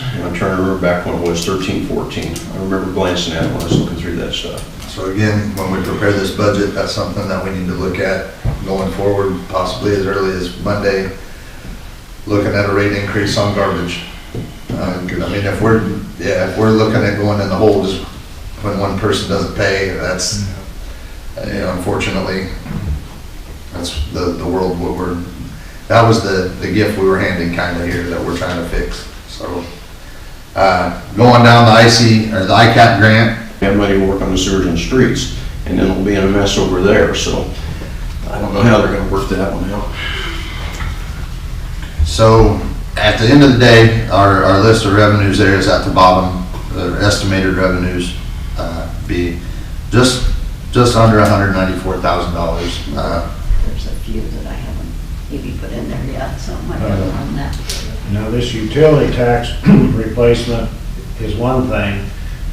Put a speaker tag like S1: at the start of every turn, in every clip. S1: And I'm trying to remember back when it was, 13, 14. I remember glancing at it when I was looking through that stuff.
S2: So again, when we prepare this budget, that's something that we need to look at going forward, possibly as early as Monday, looking at a rate increase on garbage. Uh, 'cause I mean, if we're, yeah, if we're looking at going in the hole just when one person doesn't pay, that's, uh, you know, unfortunately, that's the, the world what we're, that was the, the gift we were handing kind of here that we're trying to fix, so. Uh, going down the IC, or the ICAP grant,
S1: We have money to work on the sewers and streets, and then it'll be in a mess over there, so I don't know how they're gonna work that one out.
S2: So at the end of the day, our, our list of revenues there is at the bottom, the estimated revenues, uh, be just, just under hundred ninety-four thousand dollars. Uh,
S3: There's a few that I haven't maybe put in there yet, so I might have one on
S4: Uh,
S3: that.
S4: Now, this utility tax replacement is one thing,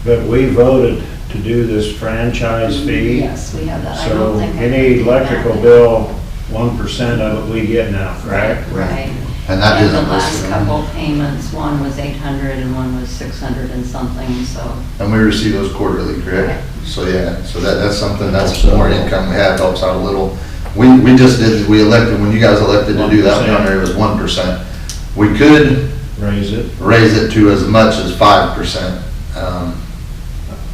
S4: but we voted to do this franchise fee.
S3: Mm-hmm, Yes, we have that. I don't
S4: So
S3: think I-
S4: any electrical bill, one percent of it we get now, correct?
S3: Right.
S2: and that
S3: And the
S2: isn't
S3: last
S2: listed.
S3: couple payments, one was eight hundred and one was six hundred and something, so.
S2: And we receive those quarterly, correct? So, yeah, so that, that's something, that's uh, more income we have, helps out a little. We, we just did, we elected, when you guys elected to do that one,
S4: 1%.
S2: it was one percent. We could
S4: Raise it.
S2: raise it to as much as five percent. Um,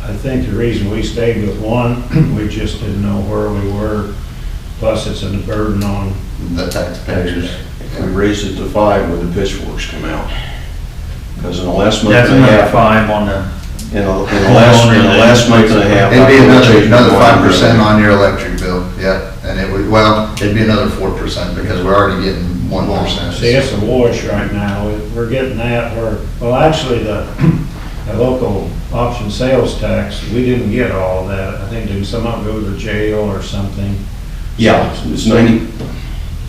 S4: I think the reason we stayed with one, we just didn't know where we were. Plus, it's a burden on,
S2: the taxpayers.
S1: If we raise it to five when the pitchforks come out. Because in the last month
S5: That's
S1: and a
S5: another
S1: half,
S5: five on the,
S1: in the, in the last, in the last month and a half.
S2: It'd be another,
S1: I've
S2: another five
S1: changed my
S2: percent
S1: mind.
S2: on your electric bill, yeah, and it would, well, it'd be another four percent, because we're already getting one
S4: see,
S2: percent.
S4: it's a wash right now. We're getting that, we're, well, actually, the, the local option sales tax, we didn't get all of that. I think didn't some of it go to jail or something?
S1: Yeah, it's 90,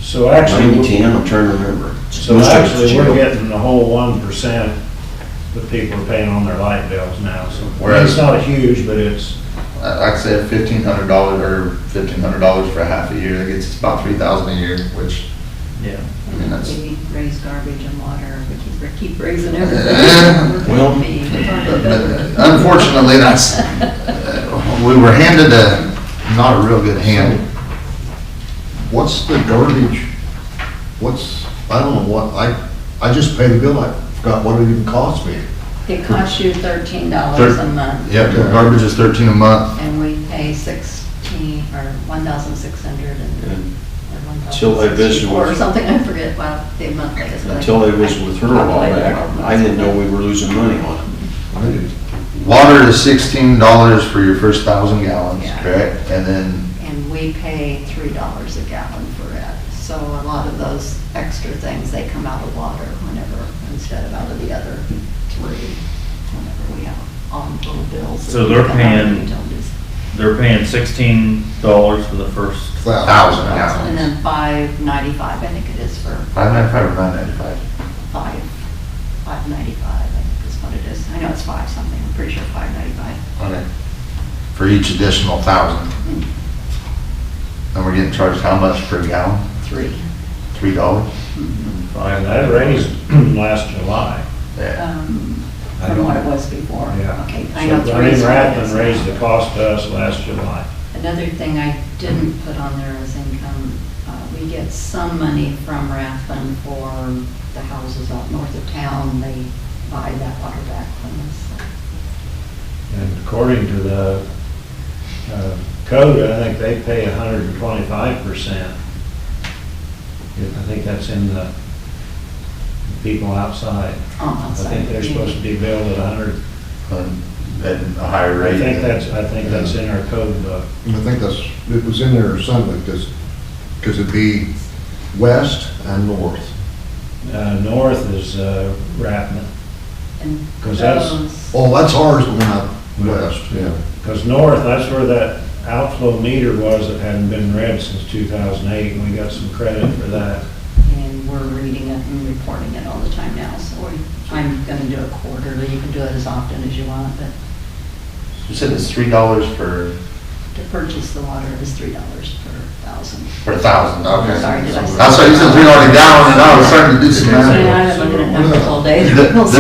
S4: So actually,
S1: 90,
S4: we-
S1: 10, I'm trying to remember.
S4: so
S1: Most of it's
S4: actually,
S1: jail.
S4: we're getting the whole one percent that people are paying on their light bills now, so.
S2: Whereas-
S4: It's not huge, but it's,
S2: I'd say fifteen hundred dollars or fifteen hundred dollars for half a year, that gets us about three thousand a year, which,
S5: yeah.
S2: I mean, that's,
S3: We raise garbage and water, we keep, we keep raising everything.
S2: Yeah,
S1: well,
S2: uh, unfortunately, that's, uh, we were handed a, not a real good hand.
S6: What's the garbage, what's, I don't know what, I, I just paid the bill, I forgot what it even cost me.
S3: It costs you thirteen dollars a month,
S2: Yep, the garbage is thirteen a month,
S3: and we pay sixteen, or one thousand six hundred and
S1: And
S3: one
S1: Till I
S3: thousand
S1: visited
S3: sixty-four or
S1: with-
S3: something, I forget what the monthly is. but I-
S1: Until I was with her a while back, I didn't know we were losing money on it.
S6: I did.
S2: water is sixteen dollars for your first thousand gallons,
S3: Yeah.
S2: correct? And then
S3: and we pay three dollars a gallon for it. So a lot of those extra things, they come out of water whenever, instead of out of the other three, whenever we have all little bills. that
S5: So they're
S3: come out of
S5: paying-
S3: utilities.
S5: They're paying sixteen dollars for the first.
S2: thousand
S3: And
S2: gallons.
S3: then five ninety-five, I think it is for
S2: Five ninety-five or nine ninety-five?
S3: five, five ninety-five, I think is what it is. I know it's five something, I'm pretty sure five ninety-five.
S2: Okay. For each additional thousand. And we're getting charged how much per gallon?
S3: Three.
S2: Three dollars?
S4: and that raised last July.
S2: Yeah.
S3: um,
S4: I
S3: From
S4: don't-
S3: what it was before.
S4: Yeah.
S3: Okay, I know
S4: So,
S3: three is
S4: mean,
S3: what it
S4: Rathman
S3: is now.
S4: raised the cost to us last July.
S3: Another thing I didn't put on there is income. Uh, We get some money from Rathbun for the houses out north of town. They buy that water back from us.
S4: And according to the uh, code, I think they pay hundred and twenty-five percent. I think that's in the people outside.
S3: Oh,
S4: I
S3: outside.
S4: think they're supposed to be billed at hundred.
S2: And At a higher rate.
S4: I think that's, I think that's in our code book.
S6: I think that's, it was in there or something, because, because it'd be west and north.
S4: Uh, North is uh, Rathman,
S3: And
S4: 'Cause that's-
S3: those-
S6: Oh, that's ours, but not west, yeah.
S4: because North, that's where that outflow meter was that hadn't been read since two thousand eight, and we got some credit for that.
S3: And we're reading it and reporting it all the time now, so we- I'm going to do it quarterly. You can do it as often as you want, but
S2: You said it's three dollars for,
S3: to purchase the water is $3 per thousand.
S2: for a thousand, okay.
S3: Oh, Sorry, did I say-
S2: That's why you said three dollars a gallon, and I was starting to do some
S3: I
S2: math.
S3: mean, I haven't looked at numbers all day.
S2: The- the